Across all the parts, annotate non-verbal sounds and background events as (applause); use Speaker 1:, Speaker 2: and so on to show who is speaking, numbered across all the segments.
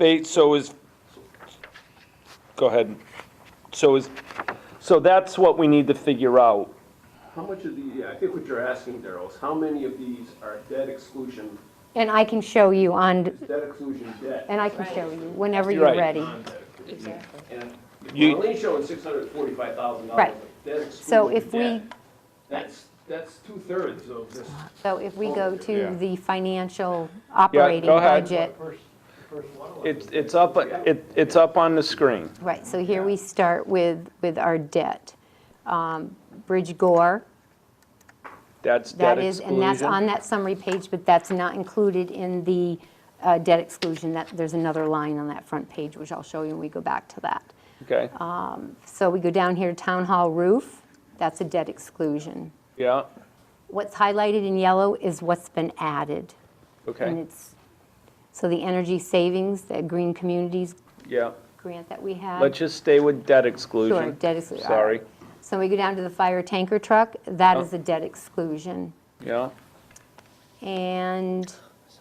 Speaker 1: Eight, so is, go ahead. So is, so that's what we need to figure out.
Speaker 2: How much of the, yeah, I think what you're asking, Daryl, is how many of these are debt exclusion,
Speaker 3: And I can show you on,
Speaker 2: debt exclusion debt?
Speaker 3: and I can show you whenever
Speaker 1: You're
Speaker 3: you're
Speaker 1: right.
Speaker 3: ready.
Speaker 2: Exactly. And
Speaker 1: You-
Speaker 2: we're only showing six hundred and forty-five thousand dollars
Speaker 3: Right.
Speaker 2: of debt exclusion debt.
Speaker 3: So if we-
Speaker 2: That's, that's two-thirds of this.
Speaker 3: So if we go
Speaker 4: Yeah.
Speaker 3: to the financial operating
Speaker 1: ahead.
Speaker 3: budget.
Speaker 1: It's, it's up, it, it's up on the screen.
Speaker 3: Right, so here we start with, with our debt. Um, Bridge Gore,
Speaker 1: That's debt
Speaker 3: that is, and that's on
Speaker 1: exclusion.
Speaker 3: that summary page, but that's not included in the uh, debt exclusion. That, there's another line on that front page, which I'll show you when we go back to that.
Speaker 1: Okay,
Speaker 3: uh, So we go down here, Town Hall roof, that's a debt exclusion.
Speaker 1: yeah,
Speaker 3: What's highlighted in yellow is what's been added. And
Speaker 1: okay,
Speaker 3: it's, so the energy savings, the green communities
Speaker 1: yeah.
Speaker 3: grant that we had.
Speaker 1: Let's just stay with debt exclusion.
Speaker 3: Sure, debt uh, exclusion.
Speaker 1: Sorry,
Speaker 3: So we go down to the fire tanker truck, that
Speaker 1: Oh.
Speaker 3: is a debt exclusion.
Speaker 1: yeah,
Speaker 3: And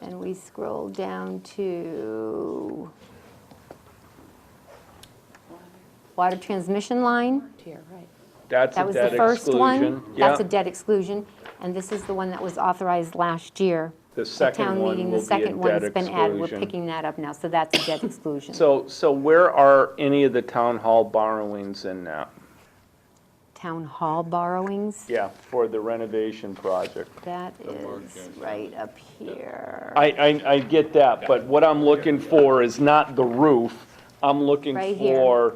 Speaker 3: then we scroll down to water transmission line.
Speaker 5: Here, right.
Speaker 1: that's
Speaker 3: That
Speaker 1: a
Speaker 3: was the
Speaker 1: debt
Speaker 3: first
Speaker 1: exclusion.
Speaker 3: one.
Speaker 1: Yeah,
Speaker 3: That's a debt exclusion. And this is the one that was authorized last year.
Speaker 1: the
Speaker 3: at
Speaker 1: second
Speaker 3: town
Speaker 1: one
Speaker 3: meeting,
Speaker 1: will
Speaker 3: the
Speaker 1: be a
Speaker 3: second one
Speaker 1: debt
Speaker 3: that's been added. We're
Speaker 1: exclusion.
Speaker 3: picking that up now, so that's
Speaker 1: (coughs)
Speaker 3: a debt exclusion.
Speaker 1: So, so where are any of the town hall borrowings in now?
Speaker 3: Town hall borrowings,
Speaker 1: Yeah, for the renovation project.
Speaker 3: that is right up here.
Speaker 1: I, I, I get that, but what I'm looking for is not the roof. I'm looking
Speaker 3: Right here.
Speaker 1: for,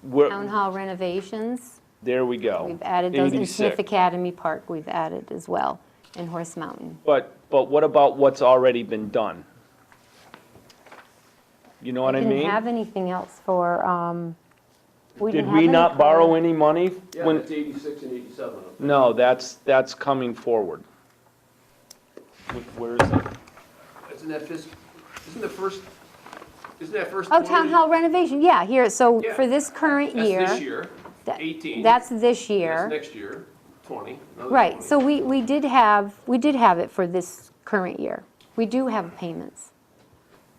Speaker 1: where-
Speaker 3: Town hall renovations,
Speaker 1: there we go.
Speaker 3: we've added those, in Smith
Speaker 1: 86.
Speaker 3: Academy Park, we've added as well, and Horse Mountain.
Speaker 1: But, but what about what's already been done? You know what I
Speaker 3: We Didn't
Speaker 1: mean?
Speaker 3: have anything else for, um, we didn't
Speaker 1: Did
Speaker 3: have
Speaker 1: we
Speaker 3: any
Speaker 1: not
Speaker 3: for-
Speaker 1: borrow any money?
Speaker 2: Yeah,
Speaker 1: when-
Speaker 2: it's eighty-six and eighty-seven of them.
Speaker 1: No, that's, that's coming forward. Wh- Where is it?
Speaker 2: Isn't that fis, isn't the first, isn't that first?
Speaker 3: Oh, town
Speaker 2: 20
Speaker 3: hall renovation, yeah, here, so
Speaker 2: Yeah.
Speaker 3: for this current
Speaker 2: That's
Speaker 3: year.
Speaker 2: this year,
Speaker 3: that-
Speaker 2: eighteen.
Speaker 3: That's this year.
Speaker 2: That's next year, twenty. another
Speaker 3: Right,
Speaker 2: 20.
Speaker 3: so we, we did have, we did have it for this current year. We do have payments,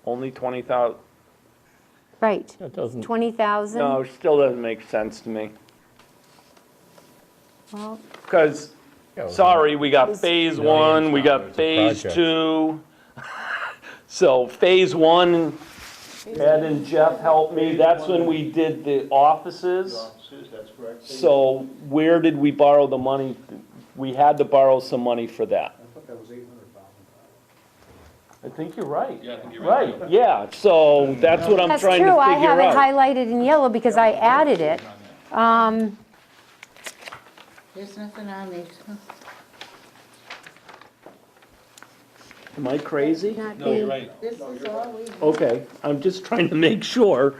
Speaker 1: Only 20,000?
Speaker 3: right.
Speaker 6: That doesn't,
Speaker 3: 20,000?
Speaker 1: No, it still doesn't make sense to me.
Speaker 3: Well,
Speaker 1: Because, sorry, we got phase one, we got phase
Speaker 6: project.
Speaker 1: two. (laughs) So phase one, Ed and Jeff helped me, that's when we did the offices.
Speaker 7: that's correct.
Speaker 1: So where did we borrow the money? We had to borrow some money for that.
Speaker 7: I thought that was eight hundred thousand.
Speaker 1: I think you're right.
Speaker 2: Yeah, I think you're right.
Speaker 1: Right, yeah, so that's what I'm
Speaker 3: that's
Speaker 1: trying to
Speaker 3: true, I have
Speaker 1: figure out.
Speaker 3: it highlighted in yellow because I added it. Um,
Speaker 5: There's nothing on these.
Speaker 1: Am I crazy?
Speaker 3: not
Speaker 7: No, you're
Speaker 3: the-
Speaker 7: right.
Speaker 5: This is all we.
Speaker 1: Okay, I'm just trying to make sure.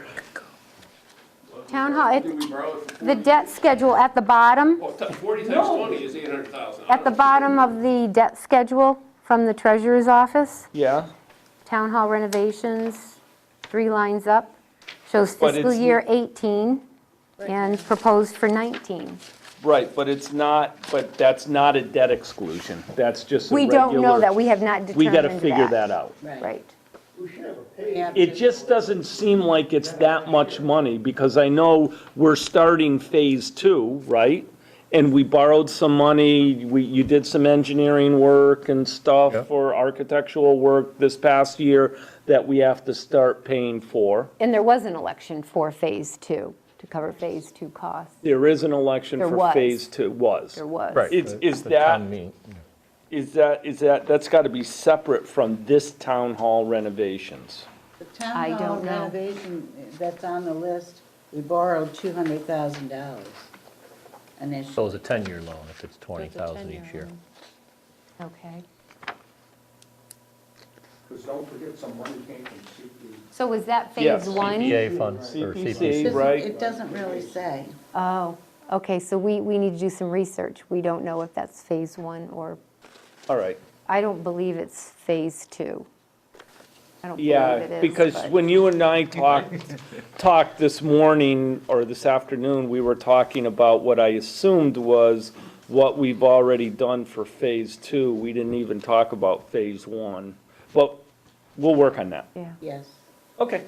Speaker 3: Town hall,
Speaker 2: I
Speaker 3: it-
Speaker 2: think we borrowed it for
Speaker 3: the debt schedule at the bottom,
Speaker 2: Well, t- 40 times 20 is 800,000.
Speaker 3: at the bottom of the debt schedule from the treasurer's office,
Speaker 1: Yeah,
Speaker 3: town hall renovations, three lines up, shows
Speaker 1: But
Speaker 3: fiscal
Speaker 1: it's-
Speaker 3: year 18 and proposed for 19.
Speaker 1: right, but it's not, but that's not a debt exclusion, that's just a
Speaker 3: We
Speaker 1: regular.
Speaker 3: don't know that, we have not
Speaker 1: We
Speaker 3: determined that.
Speaker 1: gotta figure that out.
Speaker 3: Right.
Speaker 7: We should have a page.
Speaker 1: It just doesn't seem like it's that much money, because I know we're starting phase two, right? And we borrowed some money, we, you did some engineering work and
Speaker 6: Yeah.
Speaker 1: stuff for architectural work this past year that we have to start paying for.
Speaker 3: And there was an election for Phase Two, to cover Phase Two costs.
Speaker 1: There is an election
Speaker 3: There
Speaker 1: for
Speaker 3: was.
Speaker 1: phase two, was.
Speaker 3: There was.
Speaker 6: right.
Speaker 1: Is-
Speaker 6: the-
Speaker 1: is
Speaker 6: the town
Speaker 1: that-
Speaker 6: meeting.
Speaker 1: Is that, is that, that's gotta be separate from this town hall renovations.
Speaker 5: The
Speaker 3: I
Speaker 5: town hall
Speaker 3: don't know.
Speaker 5: renovation that's on the list, we borrowed two hundred thousand dollars. And it's,
Speaker 6: So it's a 10-year loan if it's 20,000 each year.
Speaker 3: Okay.
Speaker 7: Because don't forget, some money came from E. CP.
Speaker 3: So was that
Speaker 1: Yes.
Speaker 3: Phase One?
Speaker 6: CPA funds or
Speaker 1: CPC.
Speaker 6: CPC.
Speaker 5: Doesn't-
Speaker 1: right.
Speaker 5: it doesn't really say.
Speaker 3: Oh, okay, so we, we need to do some research. We don't know if that's Phase One or,
Speaker 1: All right.
Speaker 3: I don't believe it's Phase Two. I don't believe it
Speaker 1: Yeah,
Speaker 3: is.
Speaker 1: because
Speaker 3: but-
Speaker 1: when you and I talked, talked this morning or this afternoon, we were talking about what I assumed was what we've already done for phase two. We didn't even talk about phase one, but we'll work on that.
Speaker 3: Yeah,
Speaker 5: Yes,
Speaker 1: Okay.